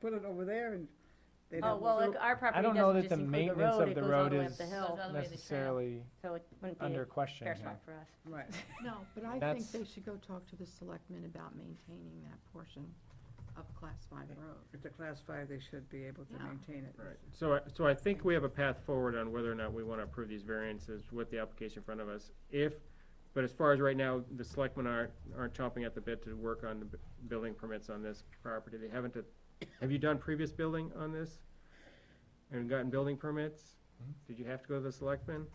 put it over there and they Oh, don't. well, do- like, our I property don't know doesn't that just the include the maintenance road, of it the goes all road the way up is the Goes hill, all the way to the trail. necessarily so it wouldn't be under a question fair here. smart for us. Right, No, but I That's- think they should go talk to the selectmen about maintaining that portion of Class 5 road. if they're class five, they should be able to Yeah. maintain it. Right, so, I- so I think we have a path forward on whether or not we wanna approve these variances with the application in front of us. If, but as far as right now, the selectmen aren't, aren't chomping at the bit to work on the bu- building permits on this property. They haven't, uh, have you done previous building on this? And gotten building permits? Mhm. Did you have to go to the selectmen?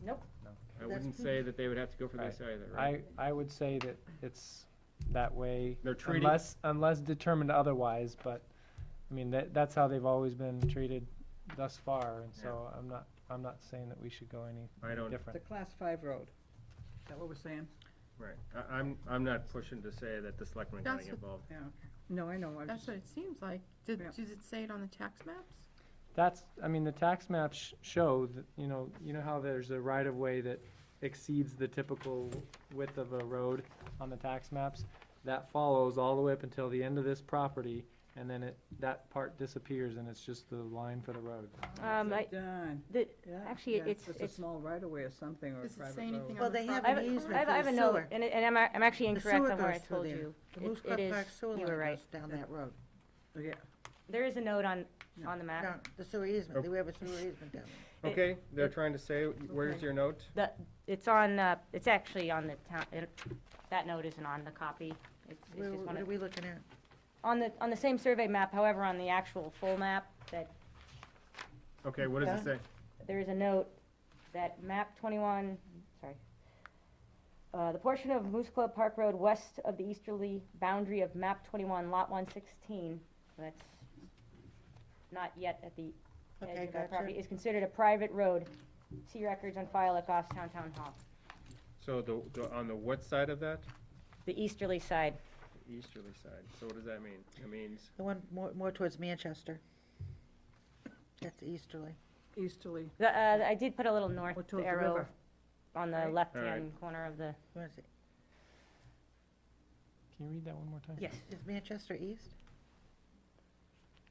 I wouldn't say that they would have to go for this either, right? I, I would say that it's that way. They're treating- Unless, unless determined otherwise, but, I mean, that, that's how they've always been treated thus far, and so I'm not, I'm not saying that we should go any I any don't- It's a different. class five road. Is that what we're saying? Right, I, I'm, I'm not pushing to say that the selectmen are That's getting what- involved. Yeah, okay. No, I know. I was That's just- what it seems like. Did, Yeah. does it say it on the tax maps? That's, I mean, the tax maps sh- show that, you know, you know how there's a right-of-way that exceeds the typical width of a road on the tax maps? That follows all the way up until the end of this property, and then it, that part disappears, and it's just the line for the road. Um, I, Done. the, Yeah, actually, yeah, it's- a it's- small right of way or something or a Does it private say anything road. on Well, the they have I have, an property? a- easement I have- I for have the a note, sewer. and, it- and I'm, I'm actually The incorrect sewer on where I goes through told there. you. The It- Moose it Club is- Park sewer you line were right. goes down that road. Yeah, There is a note on, Yeah. on the map. Down- The sewer easement, we have a sewer easement down It- Okay, they're trying to say, where's your note? The, it's on, uh, it's actually on the town, it- that note isn't on the copy. It's, it's just there. Where- one What are of, we looking at? on the, on the same survey map, however, on the actual full map, that Okay, what does it say? there is a note that map twenty-one, sorry. Uh, the portion of Moose Club Park Road west of the easterly boundary of map twenty-one, lot one sixteen, that's not yet at the edge Okay, of our property, gotcha. is considered a private road. See records on file at Goffstown Town Hall, So the, the- on the what side of that? the easterly side. Easterly side, so what does that mean? It means, The one more, more towards Manchester. That's easterly. easterly. The, uh, I did put a little north Or towards the arrow river. on the Right. left-hand corner of the, What is it? Can you read that one more time? yes, Is Manchester east?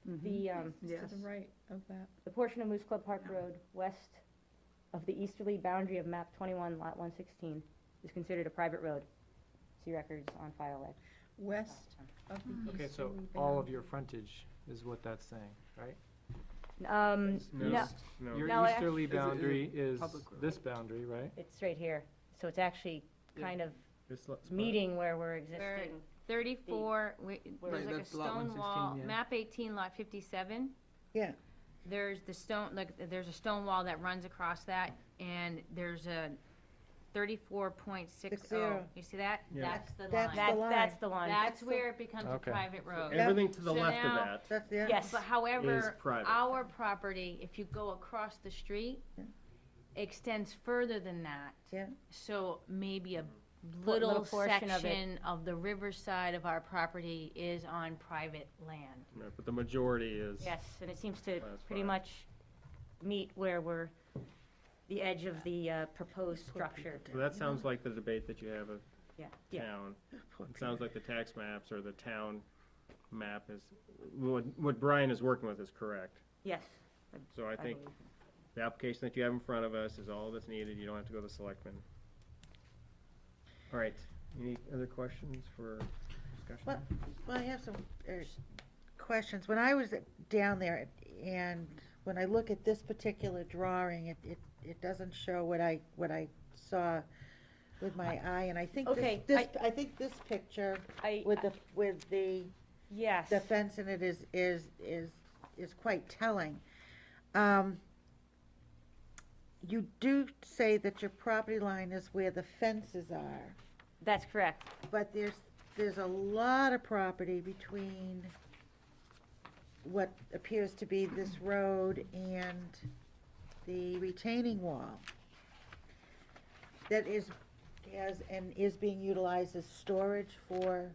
the, um, mm-hmm. Yes. To the right of that. the portion of Moose Club Park Road west of the easterly boundary of map twenty-one, lot one sixteen, is considered a private road. See records on file at. West of the Okay, so easterly all of boundary. your frontage is what that's saying, right? Um, no, no, no, Your No, I act- easterly Is it- is it boundary is public road? this boundary, right? it's right here, so it's actually kind of this lo- spot. meeting where we're existing. Thirty-four, wi- Where there's is like a it? stone wall, map eighteen, lot fifty-seven. Yeah. There's the stone, like, there's a stone wall that runs across that, and there's a thirty-four point six Six oh. zero. You see that? Yeah. That's the That's line. That's, line. that's the one. That's That's the- where it becomes a Okay. private road. Everything to the So left of now- that That's the, Yes. But is however, private. our property, if you go across the street, Yeah. extends further than that. Yeah. So maybe a little little portion of it. section of the riverside of our property is on private land. Right, But the majority is, Yes, and it seems to Oh, That's pretty fine. much meet where we're, the edge of the uh, proposed structure. so that sounds like the debate that you have of Yeah, yeah. town. Poor It sounds like the tax maps or the town map is, what, what Brian is working with is correct. Yes, So I I think believe. the application that you have in front of us is all that's needed, you don't have to go to the selectmen. All right, any other questions for discussion? Well, Well, I have some er, questions. When I was down there and when I look at this particular drawing, it, it, it doesn't show what I, what I saw with my eye. And I think this, Okay, this, I think this picture I, with the, with the yes. the fence in it is, is, is, is quite telling. Um, You do say that your property line is where the fences are, That's correct. but there's, there's a lot of property between what appears to be this road and the retaining wall that is, has, and is being utilized as storage for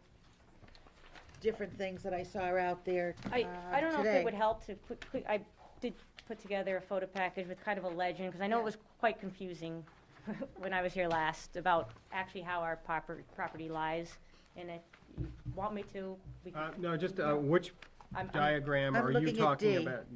different things that I saw out there I, I uh, don't know if today. it would help to put, put- I did put together a photo package with kind of a legend, because I know it Yeah. was quite confusing when I was here last about actually how our proper, property lies, and if you want me to, we Uh, can, no, just, uh, which I'm- I'm diagram I'm are you looking at talking D. about?